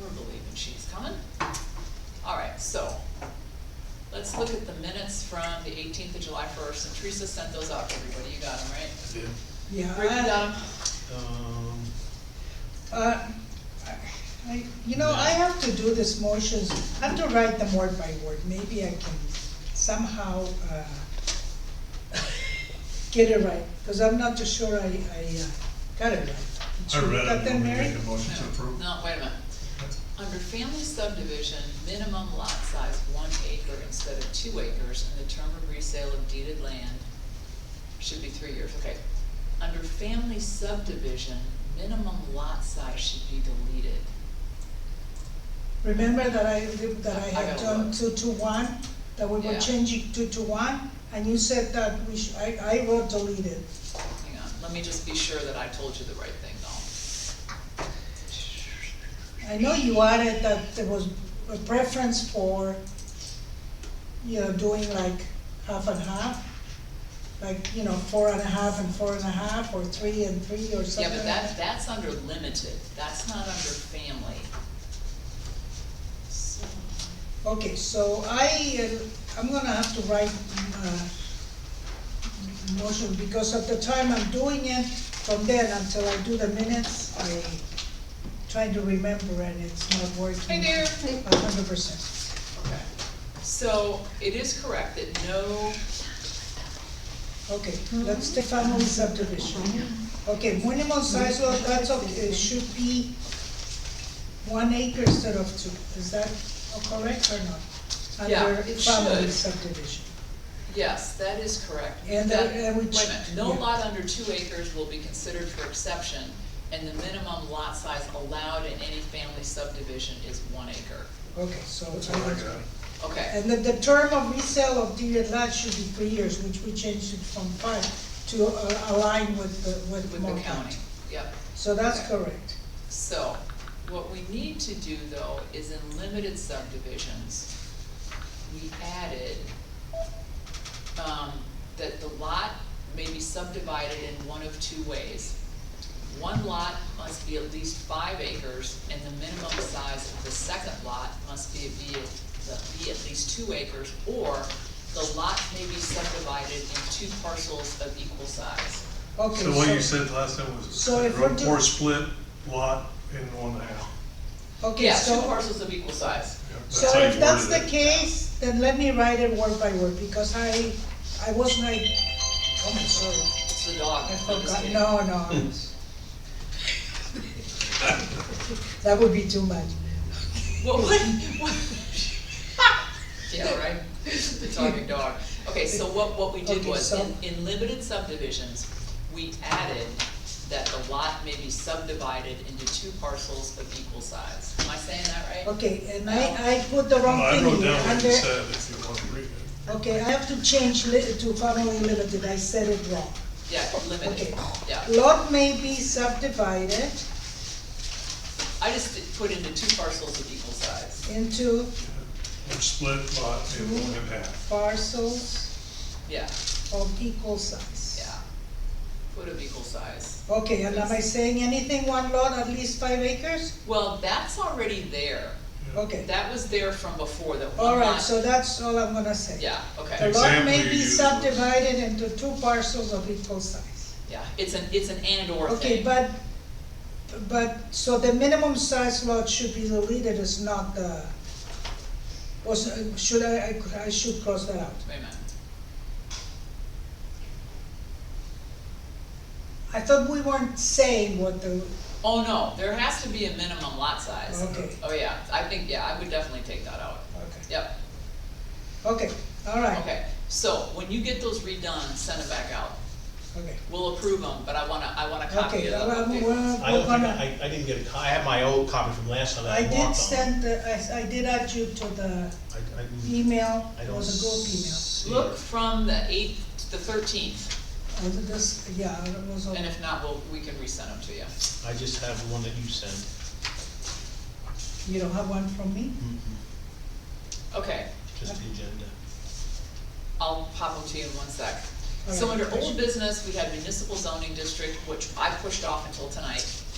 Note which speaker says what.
Speaker 1: we're believing she's coming. All right, so, let's look at the minutes from the eighteenth of July first, and Teresa sent those out to everybody, you got them, right?
Speaker 2: Um,
Speaker 3: Yeah,
Speaker 2: Yeah.
Speaker 1: Written down,
Speaker 3: um,
Speaker 2: Uh, I, you know, I have to do this motions, I have to write them word by word, maybe I can somehow, uh, get it right, cause I'm not too sure I, I uh, got it right. Did
Speaker 3: I
Speaker 2: you
Speaker 3: read
Speaker 2: got
Speaker 3: it,
Speaker 2: that,
Speaker 3: and we
Speaker 2: Mary?
Speaker 3: make a motion to approve.
Speaker 1: no, wait a minute. Under family subdivision, minimum lot size one acre instead of two acres, and the term of resale of deeded land should be three years, okay. Under family subdivision, minimum lot size should be deleted.
Speaker 2: Remember that I, that I
Speaker 1: I
Speaker 2: had
Speaker 1: got
Speaker 2: done
Speaker 1: one.
Speaker 2: two to one, that we were
Speaker 1: Yeah.
Speaker 2: changing two to one, and you said that we should, I, I wrote deleted.
Speaker 1: Hang on, let me just be sure that I told you the right thing though.
Speaker 2: I know you added that there was a preference for, you know, doing like half and half, like, you know, four and a half and four and a half, or three and three, or
Speaker 1: Yeah,
Speaker 2: something
Speaker 1: but
Speaker 2: like
Speaker 1: that,
Speaker 2: that.
Speaker 1: that's under limited, that's not under family. So,
Speaker 2: Okay, so I, uh, I'm gonna have to write, uh, motion, because at the time I'm doing it, from then until I do the minutes, I trying to remember, and it's not
Speaker 1: Hey
Speaker 2: working
Speaker 1: there.
Speaker 2: a hundred percent.
Speaker 1: Okay. So it is correct that no
Speaker 2: Okay, let's take family subdivision. Okay, minimum size of, that's okay, it should be one acre instead of two, is that correct or not?
Speaker 1: Yeah,
Speaker 2: Under
Speaker 1: it
Speaker 2: family
Speaker 1: should.
Speaker 2: subdivision.
Speaker 1: Yes, that is correct.
Speaker 2: And
Speaker 1: That-
Speaker 2: there- and we
Speaker 1: Wait a minute,
Speaker 2: ch-
Speaker 1: no
Speaker 2: yeah.
Speaker 1: lot under two acres will be considered for exception, and the minimum lot size allowed in any family subdivision is one acre.
Speaker 2: Okay, so. uh,
Speaker 3: That's all I got.
Speaker 1: Okay,
Speaker 2: And then the term of resale of deeded land should be three years, which we changed it from five to uh, align with the, with.
Speaker 1: with the
Speaker 2: Montana.
Speaker 1: county, yep.
Speaker 2: So that's
Speaker 1: Okay.
Speaker 2: correct.
Speaker 1: So, what we need to do though is in limited subdivisions, we added, um, that the lot may be subdivided in one of two ways. One lot must be at least five acres, and the minimum size of the second lot must be, be, at- be at least two acres, or the lot may be subdivided in two parcels of equal size.
Speaker 2: Okay,
Speaker 3: So what you said last time was,
Speaker 2: So if we're do-
Speaker 3: or split lot in one half.
Speaker 2: Okay,
Speaker 1: Yeah, two
Speaker 2: so,
Speaker 1: parcels of equal size.
Speaker 3: Yeah,
Speaker 2: so
Speaker 3: how you
Speaker 2: if that's the
Speaker 3: worded it.
Speaker 2: case, then let me write it word by word, because I, I was like, oh, my sorry.
Speaker 1: It's the dog.
Speaker 2: I
Speaker 1: I'm just
Speaker 2: forgot,
Speaker 1: kidding.
Speaker 2: no, no. I was- That would be too much.
Speaker 1: What, what, what? Yeah, right, the talking dog. Okay, so what, what we did
Speaker 2: Okay,
Speaker 1: was,
Speaker 2: so-
Speaker 1: in, in limited subdivisions, we added that the lot may be subdivided into two parcels of equal size. Am I saying that right?
Speaker 2: Okay, and I, I put the
Speaker 3: Well,
Speaker 2: wrong
Speaker 3: I
Speaker 2: thing
Speaker 3: wrote
Speaker 2: here.
Speaker 3: down what you
Speaker 2: Under-
Speaker 3: said, if you want to read it.
Speaker 2: Okay, I have to change li- to family limited, I said it wrong.
Speaker 1: Yeah, limited,
Speaker 2: Okay.
Speaker 1: yeah.
Speaker 2: Lot may be subdivided
Speaker 1: I just did- put into two parcels of equal size.
Speaker 2: into
Speaker 3: Or split lot in one and a half.
Speaker 2: parcels
Speaker 1: Yeah,
Speaker 2: of equal size.
Speaker 1: yeah. Put of equal size.
Speaker 2: Okay, and am I saying anything, one lot, at least five acres?
Speaker 1: Well, that's already there.
Speaker 3: Yeah.
Speaker 2: Okay,
Speaker 1: That was there from before, that one
Speaker 2: all
Speaker 1: lot.
Speaker 2: right, so that's all I'm gonna say.
Speaker 1: Yeah, okay.
Speaker 2: The lot
Speaker 3: Example
Speaker 2: may
Speaker 3: you
Speaker 2: be
Speaker 3: used was-
Speaker 2: subdivided into two parcels of equal size.
Speaker 1: Yeah, it's an, it's an and/or
Speaker 2: Okay,
Speaker 1: thing.
Speaker 2: but, but, so the minimum size lot should be deleted, is not the, was, should I, I could- I should cross that out.
Speaker 1: Wait a minute.
Speaker 2: I thought we weren't saying what the,
Speaker 1: Oh, no, there has to be a minimum lot size.
Speaker 2: Okay.
Speaker 1: Oh, yeah, I think, yeah, I would definitely take that out.
Speaker 2: okay,
Speaker 1: Yep,
Speaker 2: okay, all right,
Speaker 1: okay. So when you get those redone, send them back out.
Speaker 2: okay.
Speaker 1: We'll approve them, but I wanna, I want a copy
Speaker 2: Okay,
Speaker 1: of
Speaker 2: well,
Speaker 1: them.
Speaker 2: we're,
Speaker 4: I
Speaker 2: we're
Speaker 4: don't think,
Speaker 2: gonna,
Speaker 4: I, I didn't get a co- I have my old copy from last time
Speaker 2: I
Speaker 4: that I
Speaker 2: did
Speaker 4: walked on.
Speaker 2: send, the- I, I did add you to the
Speaker 4: I, I didn't-
Speaker 2: email,
Speaker 4: I
Speaker 2: it
Speaker 4: don't
Speaker 2: was a group email.
Speaker 4: see
Speaker 1: Look
Speaker 4: it.
Speaker 1: from the eighth to the thirteenth,
Speaker 2: I did this, yeah, it was, all-
Speaker 1: and if not, we'll, we can resend them to you.
Speaker 4: I just have the one that you sent.
Speaker 2: you don't have one from me?
Speaker 1: Okay,
Speaker 4: Just the agenda.
Speaker 1: I'll pop them to you in one sec.
Speaker 2: All
Speaker 1: So
Speaker 2: right.
Speaker 1: under old business, we had municipal zoning district, which I pushed off until tonight.